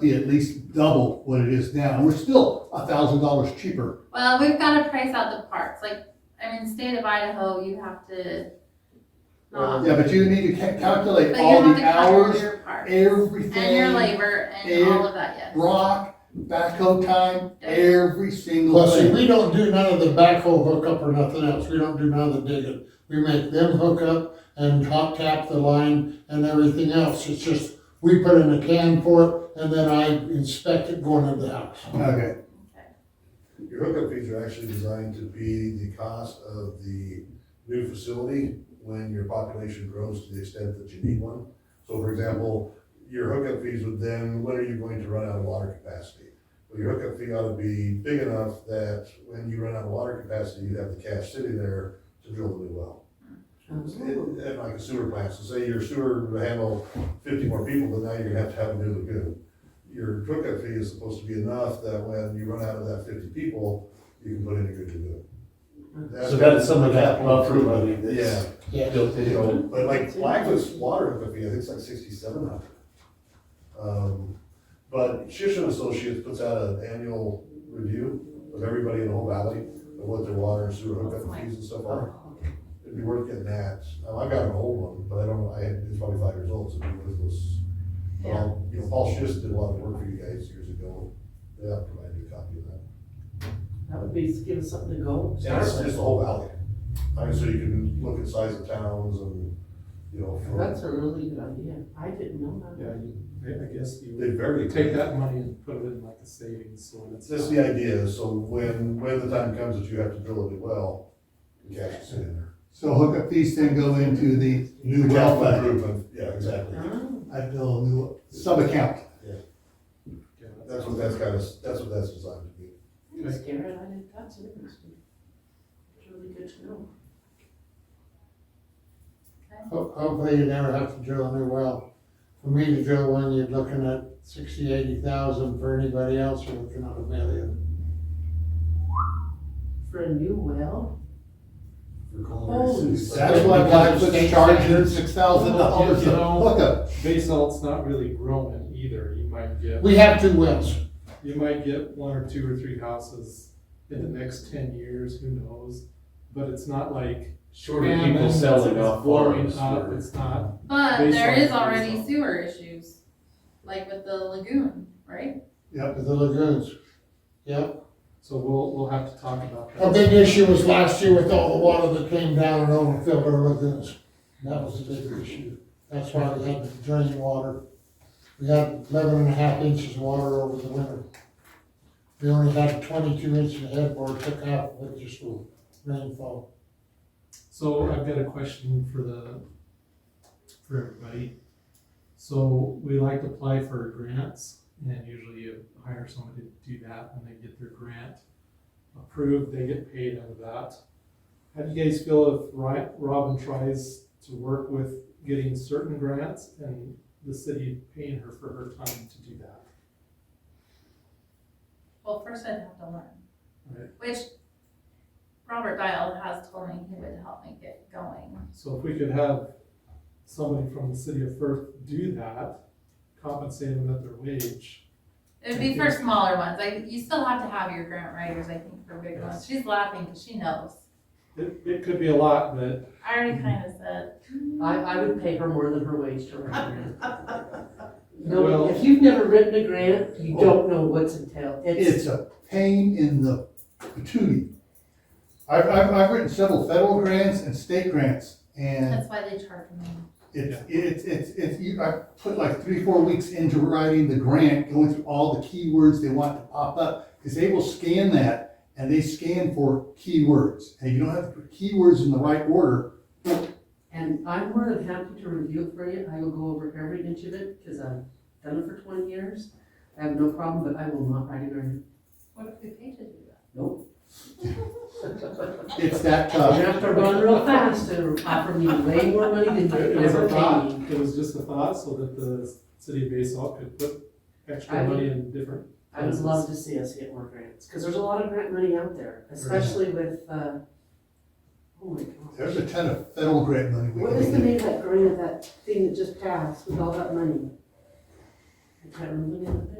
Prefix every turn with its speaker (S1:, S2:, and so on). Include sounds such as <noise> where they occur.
S1: be at least double what it is now. We're still a thousand dollars cheaper.
S2: Well, we've got to price out the parks. Like, I mean, state of Idaho, you have to. not-
S1: Yeah, but you need to ca- calculate
S2: But you
S1: all
S2: have
S1: the
S2: to cover
S1: hours,
S2: your parks and your
S1: everything,
S2: labor and
S1: and
S2: all of that, yes.
S1: rock, backhoe time, every single
S3: Well, see,
S1: thing.
S3: we don't do none of the backhoe hookup or nothing else, we don't do none of the digging. We make them hook up and hot tap the line and everything else, it's just, we put in a can for it, and then I inspect it going into the house.
S1: Okay,
S4: Your hookup fees are actually designed to be the cost of the new facility when your population grows to the extent that you need one. So for example, your hookup fees would then, when are you going to run out of water capacity? Well, your hookup fee ought to be big enough that when you run out of water capacity, you have the cash sitting there to drill the new well. It- And like a sewer plant, so say your sewer would handle fifty more people, but now you're gonna have to have a new lagoon your hookup fee is supposed to be enough that when you run out of that fifty people, you can put in a good lagoon.
S5: So that's some of that buffer money
S4: Yeah,
S5: that's
S3: Yeah,
S5: built
S4: you know,
S5: in.
S4: but like Blackwood's water hookup fee, I think it's like sixty-seven hundred. Um, but Shishan Associates puts out an annual review of everybody in the whole valley, of what their water and sewer hookup fees and stuff are. It'd be worth getting that, now, I got an old one, but I don't, I, it's probably five years old, so it'd be worthless. Well, you know, Paul Schiss did a lot of work for you guys years ago, they have provided a copy of that.
S6: That would be, give us something to go.
S4: And it's just the whole valley, I mean, so you can look at size of towns and, you know,
S6: That's
S4: for,
S6: a really good idea. I didn't know that.
S5: Yeah, you- I I guess you
S4: they vary.
S5: would take that money and put it in like a savings, so it's.
S4: It's just the idea, so when, when the time comes that you have to drill a new well, the cash is in there.
S1: so hookup fees then go into the new
S4: The
S1: well
S4: capital
S1: fund,
S4: improvement, yeah, exactly,
S6: Oh,
S1: I know, new sub-account.
S5: Yeah,
S4: that's what that's kind of, that's what that's designed to be.
S6: Thanks, Garrett. I didn't, that's interesting. It's really good to know.
S3: ho- hopefully you never have to drill a new well. For me to drill one, you're looking at sixty, eighty thousand, for anybody else, you're looking at a million.
S6: For a new well?
S4: For culinary
S6: Holy
S4: cities.
S1: That's why Blackwood's charging six thousand dollars a
S5: You know-
S1: hookup.
S5: Basalt's not really growing either, you might get,
S3: We have two wells,
S5: you might get one or two or three houses in the next ten years, who knows? But it's not like.
S7: Short of
S5: famine,
S7: people
S5: it's
S7: selling off
S5: blowing
S7: farms.
S5: up, it's not,
S2: But
S5: Based
S2: there
S5: on-
S2: is already
S5: based on-
S2: sewer issues, like with the lagoon, right?
S3: with the lagoons, yep.
S5: so we'll, we'll have to talk about that.
S3: A big issue was last year with all the water that came down and overfilled our lagoons. That was a big issue. That's why we had to drain water. We had eleven and a half inches of water over the winter. We only had twenty-two inches of headboard took out with just the rainfall.
S5: So I've got a question for the, for everybody. So we like to apply for grants and usually you hire somebody to do that when they get their grant approved, they get paid out of that. How do you guys feel if Ri- Robin tries to work with getting certain grants and the city paying her for her time to do that?
S2: Well, first I'd have to learn.
S5: Right.
S2: Which Robert Dial has told me he would help me get going.
S5: So if we could have somebody from the city of Firth do that, compensate them at their wage,
S2: It'd be for smaller ones, like, you still have to have your grant writers, I think, for big ones, she's laughing, cause she knows.
S5: It, it could be a lot, but
S2: I already kinda said,
S6: I, I would pay her more than her wage to write a
S5: <laughs>
S6: grant. No,
S5: Well- Oh.
S6: if you've never written a grant, you don't know what's entailed. It's,
S1: It's a pain in the patootie. I've, I've, I've written several federal grants and state grants, and
S2: that's why they charge me.
S1: It's, it's, it's, it's, you, I put like three, four weeks into writing the grant, going through all the keywords they want to pop up, because they will scan that, and they scan for keywords. And if you don't have the keywords in the right order,
S6: and I'm more than happy to review it for you. I will go over every inch of it because I've done it for twenty years. I have no problem, but I will not write a grant.
S2: What if we paid to do that?
S1: it's that uh,
S6: You
S1: tough.
S6: have to run real fast to offer me way more money than
S5: it
S6: you
S5: was a
S6: ever
S5: thought,
S6: paid me.
S5: it was just a thought, so that the city of Basalt could put extra
S6: I
S5: money in different.
S6: I would love to see us get more grants, because there's a lot of grant money out there, especially with, uh, oh my
S1: There's
S6: gosh.
S1: a ton of federal grant money we
S6: What is
S1: can
S6: the
S1: get.
S6: name of that grant, that thing that just passed with all that money? I can't remember the name of it.